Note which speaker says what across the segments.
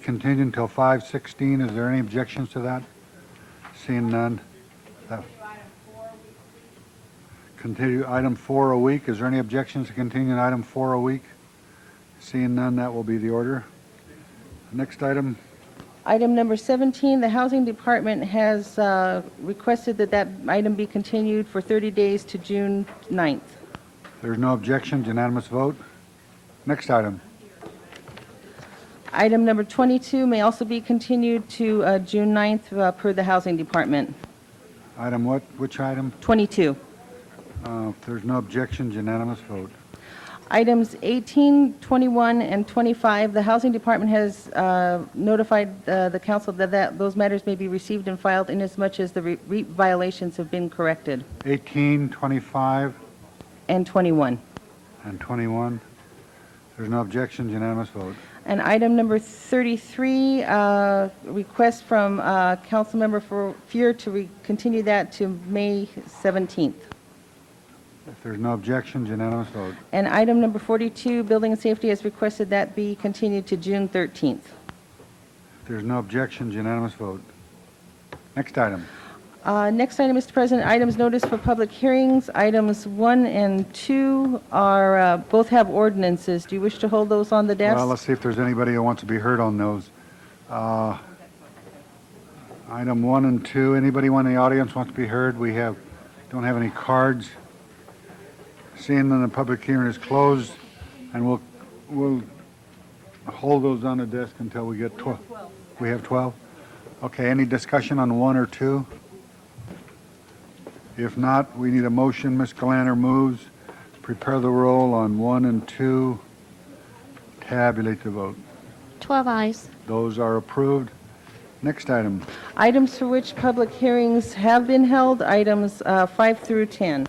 Speaker 1: Continued until 5:16. Is there any objections to that? Seeing none. That- Continue item four a week. Is there any objections to continuing item four a week? Seeing none, that will be the order. Next item,
Speaker 2: Item number 17, the Housing Department has uh, requested that that item be continued for 30 days to June 9th.
Speaker 1: there's no objection, unanimous vote. Next item,
Speaker 2: Item number 22 may also be continued to uh, June 9th uh, per the Housing Department.
Speaker 1: item what, which item?
Speaker 2: 22.
Speaker 1: Uh, if There's no objections, unanimous vote.
Speaker 2: Items 18, 21, and 25, the Housing Department has uh, notified uh, the council that that those matters may be received and filed inasmuch as the re- re- violations have been corrected.
Speaker 1: 18, 25,
Speaker 2: And 21.
Speaker 1: and 21. There's no objections, unanimous vote.
Speaker 2: And item number 33, uh, request from uh, Councilmember Fu- Fuhr to re- continue that to May 17th.
Speaker 1: If there's no objections, unanimous vote.
Speaker 2: And item number 42, Building and Safety has requested that be continued to June 13th.
Speaker 1: If there's no objections, unanimous vote. Next item,
Speaker 2: Uh, Next item, Mr. President, items noticed for public hearings. Items 1 and 2 are, uh, both have ordinances. Do you wish to hold those on the desk?
Speaker 1: well, let's see if there's anybody who wants to be heard on those. Uh, Item one and two, anybody in the audience wants to be heard? We have, don't have any cards. Seeing that the public hearing is closed, and we'll, we'll hold those on the desk until we get 12. We have 12? Okay, any discussion on one or two? If not, we need a motion. Ms. Glanter moves. Prepare the roll on one and two. Tabulate the vote.
Speaker 3: 12 eyes.
Speaker 1: Those are approved. Next item,
Speaker 2: Items for which public hearings have been held, items uh, 5 through 10.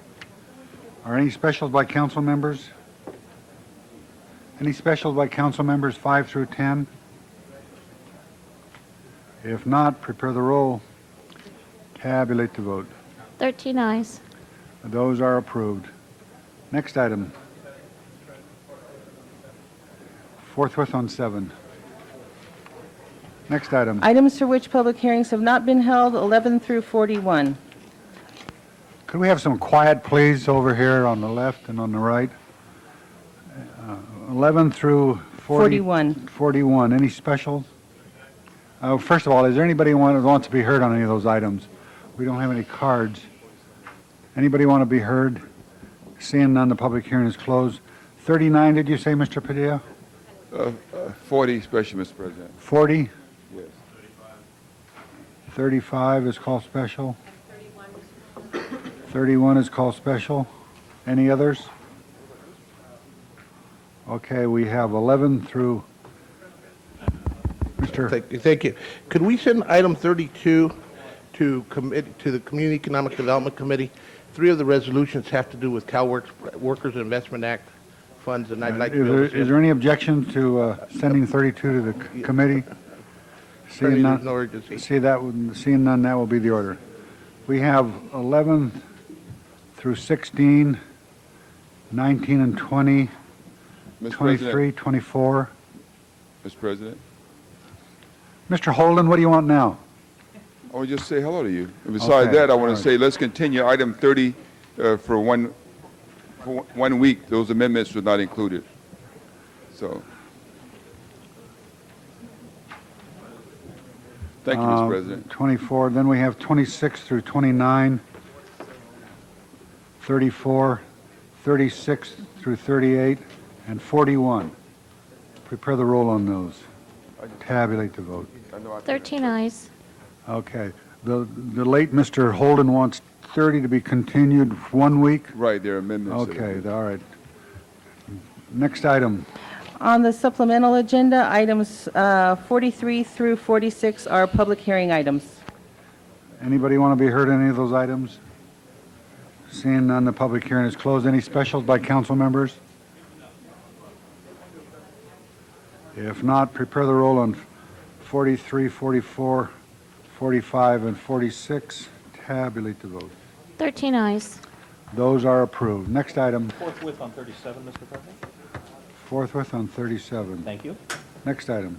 Speaker 1: are any specials by council members? Any specials by council members, five through 10? If not, prepare the roll. Tabulate the vote.
Speaker 3: 13 eyes.
Speaker 1: Those are approved. Next item. Forthwith on seven. Next item.
Speaker 2: Items for which public hearings have not been held, 11 through 41.
Speaker 1: Could we have some quiet, please, over here on the left and on the right? Uh, 11 through 40
Speaker 2: 41.
Speaker 1: 41. Any specials? Uh, First of all, is there anybody who want- wants to be heard on any of those items? We don't have any cards. Anybody want to be heard? Seeing none, the public hearing is closed. 39, did you say, Mr. Padilla?
Speaker 4: Uh, uh, 40 special, Mr. President.
Speaker 1: 40?
Speaker 4: Yes.
Speaker 1: 35 is called special. 31 is called special. Any others? Okay, we have 11 through, Mr.,
Speaker 5: Thank, thank you. Could we send item 32 to commit, to the Community Economic Development Committee? Three of the resolutions have to do with CalWorks, Workers Investment Act funds, and I'd like to
Speaker 1: Uh, is
Speaker 5: be able
Speaker 1: there,
Speaker 5: to
Speaker 1: is
Speaker 5: send-
Speaker 1: there any objection to uh, sending 32 to the c- committee? Seeing
Speaker 5: Apparently there's no
Speaker 1: none,
Speaker 5: urgency.
Speaker 1: see that, would- seeing none, that will be the order. We have 11 through 16, 19 and 20,
Speaker 4: Mr. President.
Speaker 1: 23, 24.
Speaker 4: Mr. President,
Speaker 1: Mr. Holden, what do you want now?
Speaker 4: I would just say hello to you. And besides
Speaker 1: Okay,
Speaker 4: that, I want
Speaker 1: all
Speaker 4: to say, let's continue item 30 uh, for one, for one week. Those amendments were not included. So. Thank you,
Speaker 1: Uh,
Speaker 4: Mr. President.
Speaker 1: 24, then we have 26 through 29, 34, 36 through 38, and 41. Prepare the roll on those. Tabulate the vote.
Speaker 4: I know I-
Speaker 3: 13 eyes.
Speaker 1: Okay. The the late Mr. Holden wants 30 to be continued one week?
Speaker 4: Right, there are amendments. that are-
Speaker 1: Okay, all right. Next item.
Speaker 2: On the supplemental agenda, items uh, 43 through 46 are public hearing items.
Speaker 1: Anybody want to be heard on any of those items? Seeing none, the public hearing is closed. Any specials by council members? If not, prepare the roll on 43, 44, 45, and 46. Tabulate the vote.
Speaker 3: 13 eyes.
Speaker 1: Those are approved. Next item,
Speaker 6: Forthwith on 37, Mr. President.
Speaker 1: forthwith on 37.
Speaker 6: Thank you.
Speaker 1: Next item.